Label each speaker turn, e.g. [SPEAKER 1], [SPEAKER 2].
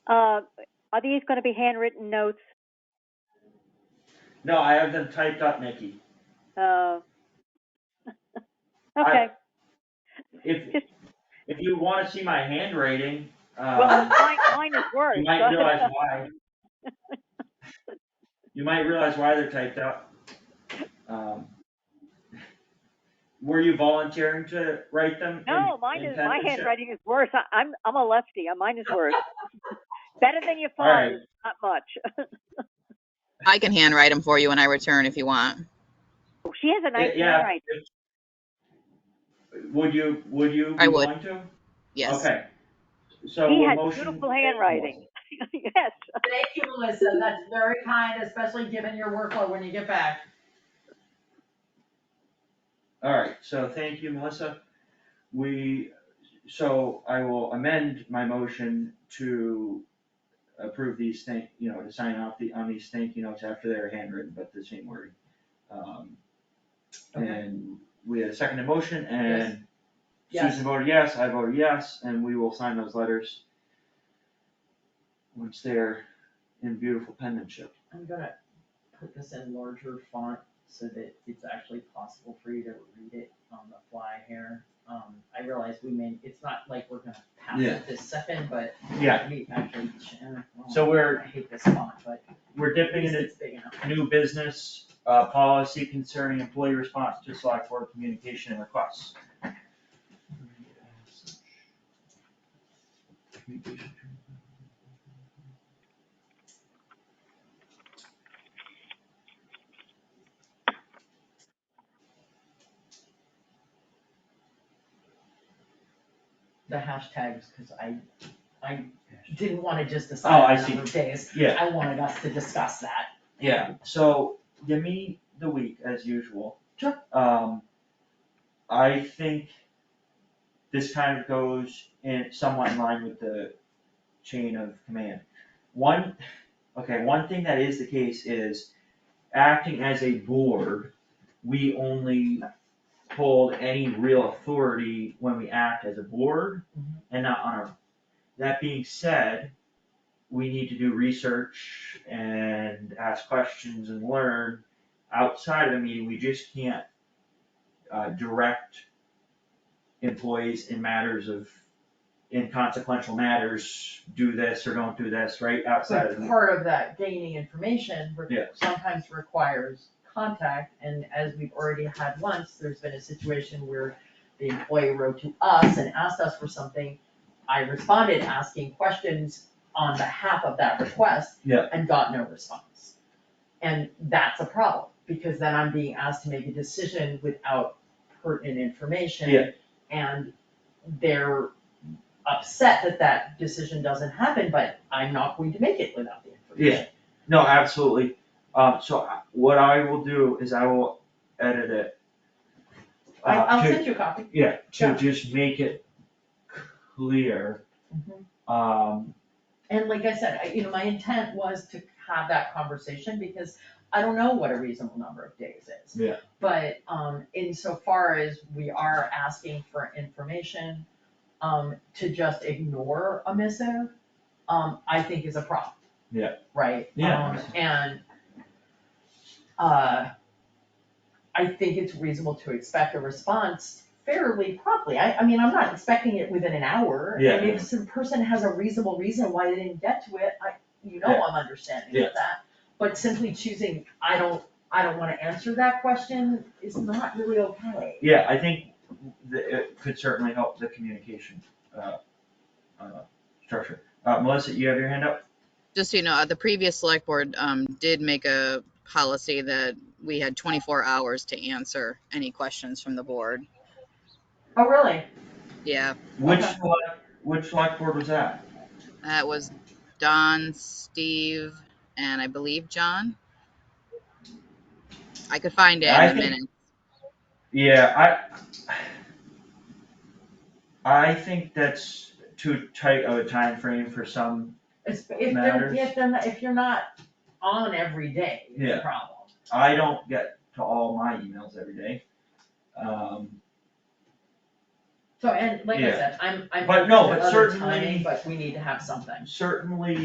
[SPEAKER 1] Uh, Are these going to be handwritten notes?
[SPEAKER 2] No, I have them typed up, Nikki.
[SPEAKER 1] Uh,
[SPEAKER 2] I-
[SPEAKER 1] Okay,
[SPEAKER 2] If,
[SPEAKER 1] Just-
[SPEAKER 2] if you wanna see my handwriting,
[SPEAKER 1] well,
[SPEAKER 2] um,
[SPEAKER 1] mine, mine is worse.
[SPEAKER 2] you might realize why. You might realize why they're typed up. Um, Were you volunteering to write them? and-
[SPEAKER 1] No, mine
[SPEAKER 2] and
[SPEAKER 1] is,
[SPEAKER 2] send
[SPEAKER 1] my
[SPEAKER 2] them?
[SPEAKER 1] handwriting is worse. I- I'm, I'm a lefty, Uh, mine is worse. Better than your
[SPEAKER 2] All right.
[SPEAKER 1] father's, not much.
[SPEAKER 3] I can handwrite them for you when I return if you want.
[SPEAKER 1] Oh, She has a nice
[SPEAKER 2] Yeah.
[SPEAKER 1] handwriting.
[SPEAKER 2] Would you, would you
[SPEAKER 3] I
[SPEAKER 2] be
[SPEAKER 3] would.
[SPEAKER 2] willing to?
[SPEAKER 3] Yes.
[SPEAKER 2] Okay. So
[SPEAKER 1] He
[SPEAKER 2] we'll
[SPEAKER 1] has
[SPEAKER 2] motion-
[SPEAKER 1] beautiful handwriting. Yes,
[SPEAKER 4] Thank you, Melissa. That's very kind, especially given your workload when you get back.
[SPEAKER 2] All right, so thank you, Melissa. We, so I will amend my motion to approve these thank, you know, to sign off the, on these thank you notes after they're handwritten, but the same wording. Um,
[SPEAKER 4] Okay.
[SPEAKER 2] And we had a second to motion
[SPEAKER 4] Yes.
[SPEAKER 2] and
[SPEAKER 4] Yes.
[SPEAKER 2] Susan voted yes, I voted yes, and we will sign those letters once they're in beautiful penmanship.
[SPEAKER 4] I'm gonna put this in larger font so that it's actually possible for you to read it on the fly here. Um, I realize we may, it's not like we're gonna pass
[SPEAKER 2] Yeah.
[SPEAKER 4] it this second, but
[SPEAKER 2] Yeah.
[SPEAKER 4] we actually, can- oh,
[SPEAKER 2] So we're-
[SPEAKER 4] I hate this font, but
[SPEAKER 2] We're
[SPEAKER 4] at
[SPEAKER 2] dipping
[SPEAKER 4] least
[SPEAKER 2] into
[SPEAKER 4] it's big enough.
[SPEAKER 2] new business, uh, policy concerning employee response to select board communication and requests.
[SPEAKER 4] The hashtags, cause I, I didn't wanna just
[SPEAKER 2] Oh,
[SPEAKER 4] decide
[SPEAKER 2] I
[SPEAKER 4] on
[SPEAKER 2] see.
[SPEAKER 4] number of days.
[SPEAKER 2] Yeah,
[SPEAKER 4] I wanted us to discuss that.
[SPEAKER 2] yeah, so give me the week as usual.
[SPEAKER 4] Sure.
[SPEAKER 2] Um, I think this kind of goes in somewhat in line with the chain of command. One, okay, one thing that is the case is acting as a board, we only hold any real authority when we act as a board
[SPEAKER 4] Mhm.
[SPEAKER 2] and not on our. That being said, we need to do research and ask questions and learn outside of a meeting, we just can't uh, direct employees in matters of inconsequential matters, do this or don't do this, right, outside of
[SPEAKER 4] But
[SPEAKER 2] the
[SPEAKER 4] part of that gaining information re-
[SPEAKER 2] Yeah.
[SPEAKER 4] sometimes requires contact, and as we've already had once, there's been a situation where the employee wrote to us and asked us for something. I responded asking questions on behalf of that request.
[SPEAKER 2] Yeah.
[SPEAKER 4] And got no response. And that's a problem, because then I'm being asked to make a decision without pertinent information.
[SPEAKER 2] Yeah.
[SPEAKER 4] And they're upset that that decision doesn't happen, but I'm not going to make it without the information.
[SPEAKER 2] No, absolutely. Um, so I- what I will do is I will edit it.
[SPEAKER 4] I,
[SPEAKER 2] uh,
[SPEAKER 4] I'll
[SPEAKER 2] to-
[SPEAKER 4] send you a copy.
[SPEAKER 2] Yeah, to
[SPEAKER 4] Yeah.
[SPEAKER 2] just make it clear,
[SPEAKER 4] Mm-hmm.
[SPEAKER 2] um,
[SPEAKER 4] And like I said, I, you know, my intent was to have that conversation because I don't know what a reasonable number of days is.
[SPEAKER 2] Yeah.
[SPEAKER 4] But, um, insofar as we are asking for information, um, to just ignore a missive, um, I think is a problem.
[SPEAKER 2] Yeah.
[SPEAKER 4] Right?
[SPEAKER 2] Yeah.
[SPEAKER 4] Um, and, uh, I think it's reasonable to expect a response fairly promptly. I, I mean, I'm not expecting it within an hour.
[SPEAKER 2] Yeah.
[SPEAKER 4] And if some person has a reasonable reason why they didn't get to it, I, you know
[SPEAKER 2] Yeah.
[SPEAKER 4] I'm understanding
[SPEAKER 2] Yeah.
[SPEAKER 4] of that. But simply choosing, I don't, I don't wanna answer that question is not really okay.
[SPEAKER 2] yeah, I think the, it could certainly help the communication, uh, uh, structure. Uh, Melissa, you have your hand up?
[SPEAKER 3] Just so you know, uh, the previous select board um, did make a policy that we had 24 hours to answer any questions from the board.
[SPEAKER 4] Oh, really?
[SPEAKER 3] Yeah,
[SPEAKER 2] Which,
[SPEAKER 4] Okay.
[SPEAKER 2] select- which select board was that?
[SPEAKER 3] that was Don, Steve, and I believe John. I could find it
[SPEAKER 2] I
[SPEAKER 3] in a
[SPEAKER 2] think-
[SPEAKER 3] minute.
[SPEAKER 2] Yeah, I, I think that's too tight of a time frame for some,
[SPEAKER 4] It's, if they're,
[SPEAKER 2] Matters.
[SPEAKER 4] if they're, not- if you're not on every day, it's
[SPEAKER 2] Yeah.
[SPEAKER 4] a problem.
[SPEAKER 2] I don't get to all my emails every day. Um,
[SPEAKER 4] So, and like I
[SPEAKER 2] Yeah.
[SPEAKER 4] said, I'm, I'm
[SPEAKER 2] But
[SPEAKER 4] open
[SPEAKER 2] no,
[SPEAKER 4] to
[SPEAKER 2] but
[SPEAKER 4] other
[SPEAKER 2] certainly-
[SPEAKER 4] timing, but we need to have something.
[SPEAKER 2] Certainly,